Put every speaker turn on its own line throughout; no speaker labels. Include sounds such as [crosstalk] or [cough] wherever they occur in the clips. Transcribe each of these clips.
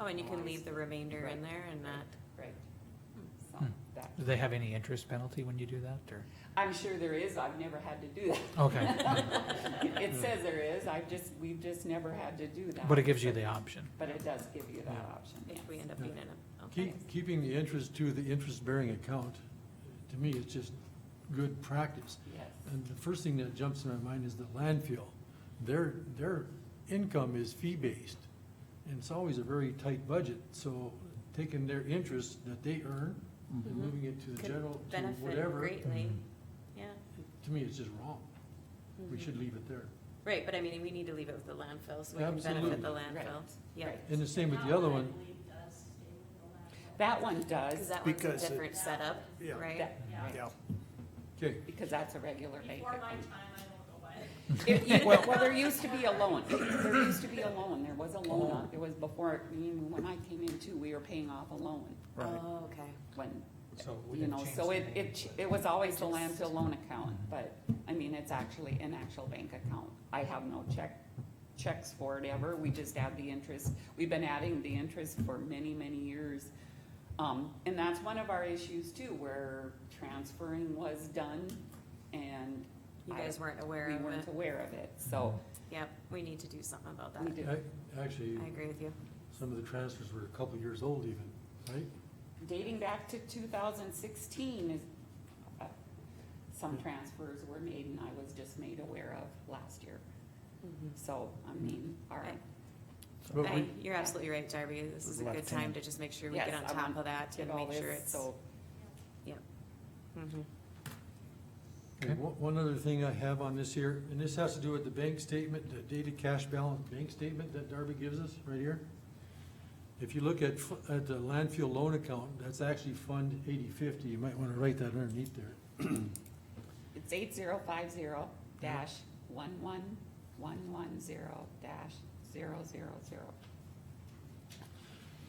Oh, and you can leave the remainder in
Right.
there and not,
Right. So,
Hmm.
that,
Do they have any interest penalty when you do that, or?
I'm sure there is, I've never had to
[laughs]
do that.
Okay,
It says there is, I've just, we've just never had to do that.
[laughs] but it gives you the option.
But it does give you that option, yes.
if we end up being in a, okay.
Keep, keeping the interest to the interest-bearing account, to me, is just good practice.
Yes,
And the first thing that jumps in my mind is the landfill. Their, their income is fee-based, and it's always a very tight budget, so taking their interest that they earn and
Mhm.
moving it to the
Could
general, to
Benefit
whatever,
greatly, yeah.
to me, it's just wrong. We
Mhm.
should leave it there.
Right, but I mean, we need to leave it with the landfill, so we can benefit the
Absolutely.
landfill,
Right.
yeah.
Right.
And the same with the other one,
that one
Cause
does,
that one's a
Because it-
different setup,
Yeah.
right?
that,
Yeah,
okay,
because that's a regular
Before
makeup. [laughs]
my time, I won't go by.
If you, well, there used to be a loan,
[laughs]
there used to be a loan, there was a loan,
Oh.
on- there was before, I mean, when I came in too, we were paying off a loan
right.
Oh, okay.
when,
So we
you
didn't
know,
change Mm-hmm.
so
the
it,
name,
it, ch-
but-
it was always the
Just-
landfill loan account, but, I mean, it's actually an actual bank account. I have no check, checks for it ever, we just add the interest, we've been adding the interest for many, many years. Um, and that's one of our issues too, where transferring was done and
You
I-
guys weren't aware
we
of
weren't
it.
aware of it, so
Yep, we need to do something about
Mm-hmm.
we
that.
do.
I- actually,
I agree with you.
some of the transfers were a couple years old even, right?
dating back to two thousand sixteen is, uh,
Mm-hmm.
some transfers were made and I was just made aware of last year. So, I mean, all right,
But
Mm-hmm. I,
we-
you're absolutely right, Darby. This is a good time to just make sure we
Yes,
get on
I
top
want
of that
get
and
all
make sure
this,
it's.
so,
Mhm.
Okay, One one other thing I have on this here, and this has to do with the bank statement, the dated cash balance bank statement that Darby gives us right here. If you look at, fu- at the landfill loan account, that's actually Fund eighty fifty. You might want to write that underneath there.
it's eight zero five zero dash one one one one zero dash zero zero zero.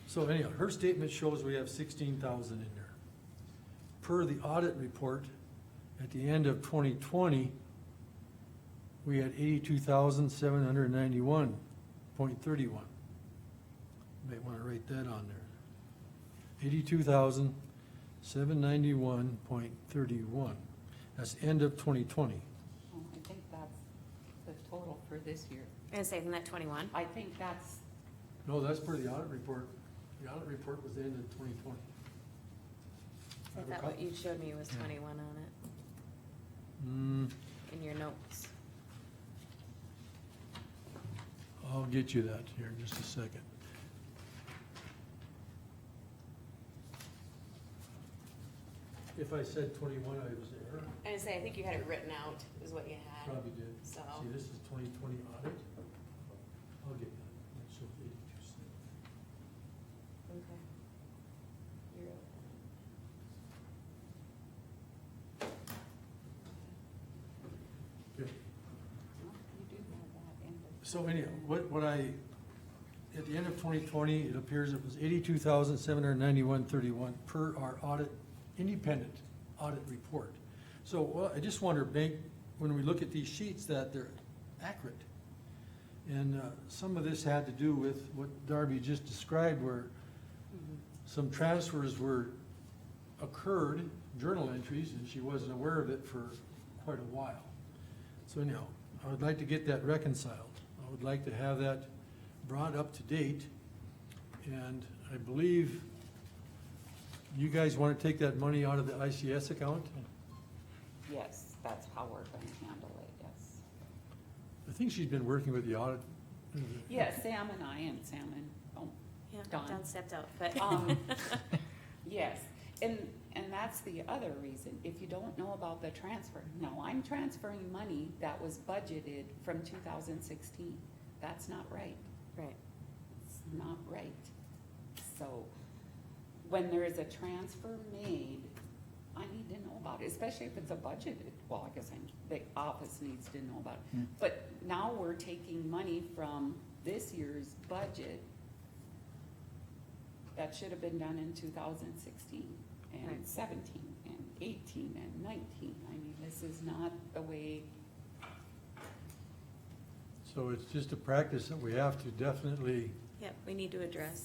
So anyhow, her statement shows we have sixteen thousand in there. Per the audit report, at the end of twenty twenty, we had eighty-two thousand seven hundred ninety-one point thirty-one. Might wanna write that on there. Eighty-two thousand seven ninety-one point thirty-one. That's end of twenty twenty.
Oh, I think that's the total for this year.
I'm gonna say, isn't that twenty-one?
I think that's,
No, that's per the audit report. The audit report was the end of twenty twenty.
I thought what you showed me was twenty-one on it
Hmm.
in your notes.
I'll get you that here in just a second. If I said twenty-one, I was there,
I'm gonna say, I think you had it written out is what you had.
probably did.
So-
See, this is twenty twenty audit. I'll get that. That shows 82. Okay.
you do have that in the-
So anyhow, what, what I, at the end of twenty twenty, it appears it was eighty-two thousand, seven hundred ninety-one, thirty-one per our audit, independent audit report. So, well, I just wonder, bank, when we look at these sheets, that they're accurate. And, uh, some of this had to do with what Darby just described, where some transfers were, occurred, journal entries, and she wasn't aware of it for quite a while. So anyhow, I would like to get that reconciled. I would like to have that brought up to date. And I believe you guys want to take that money out of the ICS account?
Yes, that's how we're gonna handle it, yes.
I think she's been working with the audit.
Yeah, Sam and I and Sam and, oh,
Yeah,
Done.
Don stepped out, but [laughs]
Um, Yes, and, and that's the other reason, if you don't know about the transfer, no, I'm transferring money that was budgeted from two thousand sixteen. That's not right,
right,
it's not right. So, when there is a transfer made, I need to know about it, especially if it's a budgeted, well, I guess I'm, the office needs to know about it. But now we're taking money from this year's budget that should have been done in two thousand sixteen and
Right.
seventeen and eighteen and nineteen. I mean, this is not the way,
So it's just a practice that we have to definitely
yep, we need to address